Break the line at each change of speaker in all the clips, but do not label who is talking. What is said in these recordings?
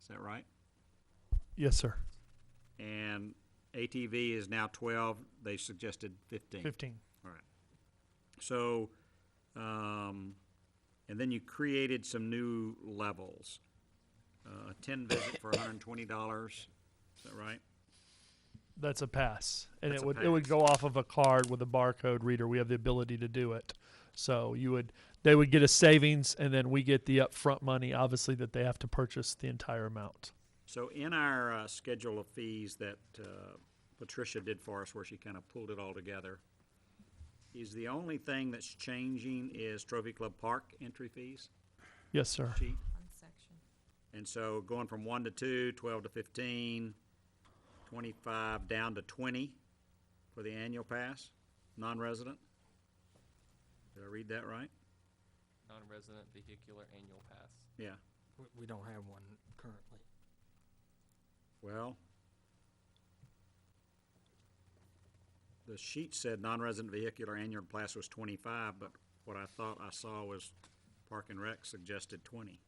Is that right?
Yes, sir.
And ATV is now twelve, they suggested fifteen.
Fifteen.
All right. So, um, and then you created some new levels. Uh, a ten visit for hundred and twenty dollars, is that right?
That's a pass, and
That's
it
a
would it would
pass.
go off of a card with a barcode reader. We have the ability to do it. So you would they would get a savings, and then we get the upfront money. Obviously, that they have to purchase the entire amount.
So in our uh, schedule of fees that uh, Patricia did for us, where she kind of pulled it all together, is the only thing that's changing is Trophy Club Park entry fees
Yes, sir.
sheet?
One section.
And so going from one to two, twelve to fifteen, twenty-five down to twenty for the annual pass, non-resident? Did I read that right?
Non-resident vehicular annual pass.
Yeah,
We, we don't have one currently.
well. The sheet said non-resident vehicular annual pass was twenty-five, but what I thought I saw was Park and Rec suggested twenty.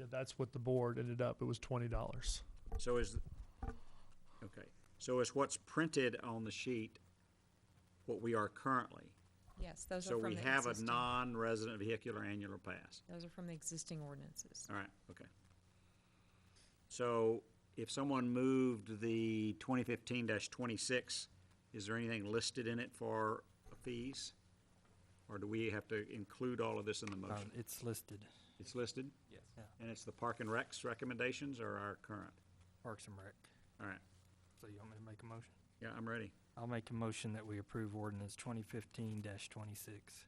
Yeah, that's what the board ended up. It was twenty dollars.
So is, okay, so is what's printed on the sheet what we are currently?
Yes, those are
So
from the
we
existing.
have a non-resident vehicular annular pass.
Those are from the existing ordinances.
All right, okay. So if someone moved the twenty fifteen twenty-six, is there anything listed in it for fees? Or do we have to include all of this in the
Um,
motion?
it's listed,
It's listed,
Yes.
and it's the Park and Recs recommendations or our current?
Parks and Rec.
All right,
So you want me to make a motion?
yeah, I'm ready.
I'll make a motion that we approve ordinance twenty fifteen twenty-six.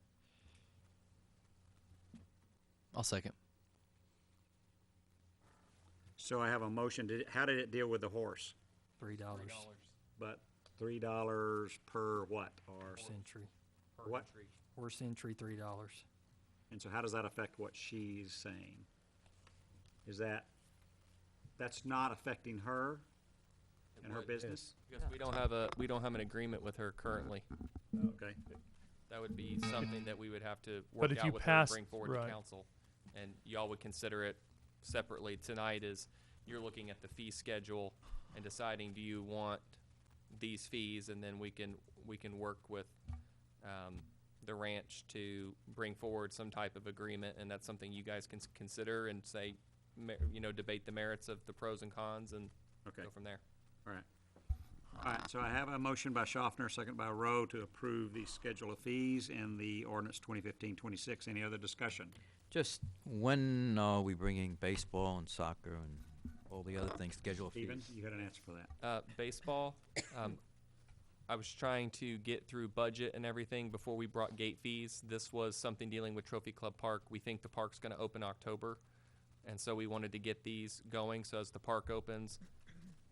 I'll second.
So I have a motion, Did it- how did it deal with the horse?
Three dollars
But three dollars per what, or,
horse entry.
per
What?
entry.
Horse entry, three dollars.
and so how does that affect what she's saying? Is that, that's not affecting her
It
and her
would,
business?
Because we don't have a, we don't have an agreement with her currently.
Okay,
That would be something that we would have to
if
work
you
out with her and
pass-
bring forward to
right.
council. And y'all would consider it separately. Tonight is, you're looking at the fee schedule and deciding, do you want these fees? And then we can, we can work with, um, the ranch to bring forward some type of agreement. And that's something you guys can s- consider and say, mer- you know, debate the merits of the pros and cons and
okay,
go from there.
all right. All right, so I have a motion by Schaffner, second by Rowe, to approve the schedule of fees and the ordinance 2015-26. Any other discussion?
Just when are we bringing baseball and soccer and all the other things scheduled?
Stephen, you had an answer for that.
Uh, baseball, um, I was trying to get through budget and everything before we brought gate fees. This was something dealing with Trophy Club Park. We think the park's gonna open October. And so we wanted to get these going, so as the park opens,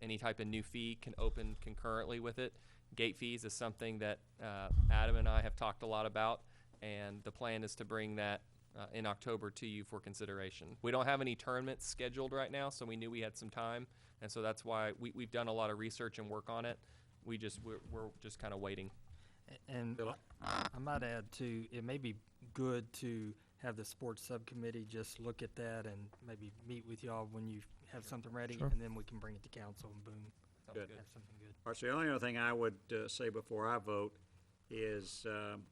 any type of new fee can open concurrently with it. Gate fees is something that, uh, Adam and I have talked a lot about, and the plan is to bring that, uh, in October to you for consideration. We don't have any tournaments scheduled right now, so we knew we had some time, and so that's why we, we've done a lot of research and work on it. We just, we're, we're just kinda waiting.
A- And
Philip?
I might add too, it may be good to have the sports subcommittee just look at that and maybe meet with y'all when you have something ready,
Sure.
and then we can bring it to council and boom,
Sounds
Good.
have something good.
All right, so the only other thing I would uh, say before I vote is, um,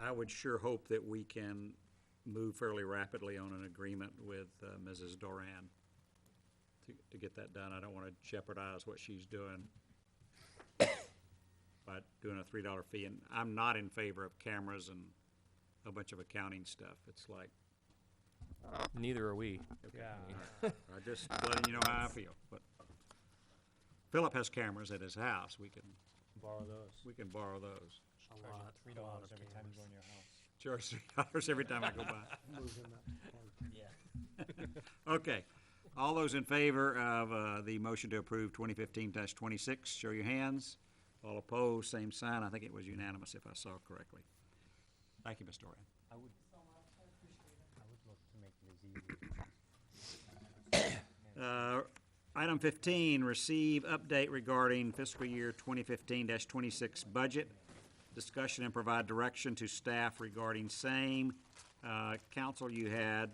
I would sure hope that we can move fairly rapidly on an agreement with uh, Mrs. Doran to, to get that done. I don't want to jeopardize what she's doing by doing a three dollar fee, and I'm not in favor of cameras and a bunch of accounting stuff. It's like,
Neither are we.
I just letting you know how I feel, but Philip has cameras at his house, we can. Borrow those. We can borrow those.
A lot, a lot of cameras.
Charge three dollars every time I go by. Okay, all those in favor of, uh, the motion to approve twenty fifteen twenty-six, show your hands. All opposed, same sign, I think it was unanimous if I saw correctly. Thank you, Ms. Dorian. Uh, Item 15, receive update regarding fiscal year 2015-26 budget, discussion and provide direction to staff regarding same. Uh, Council, you had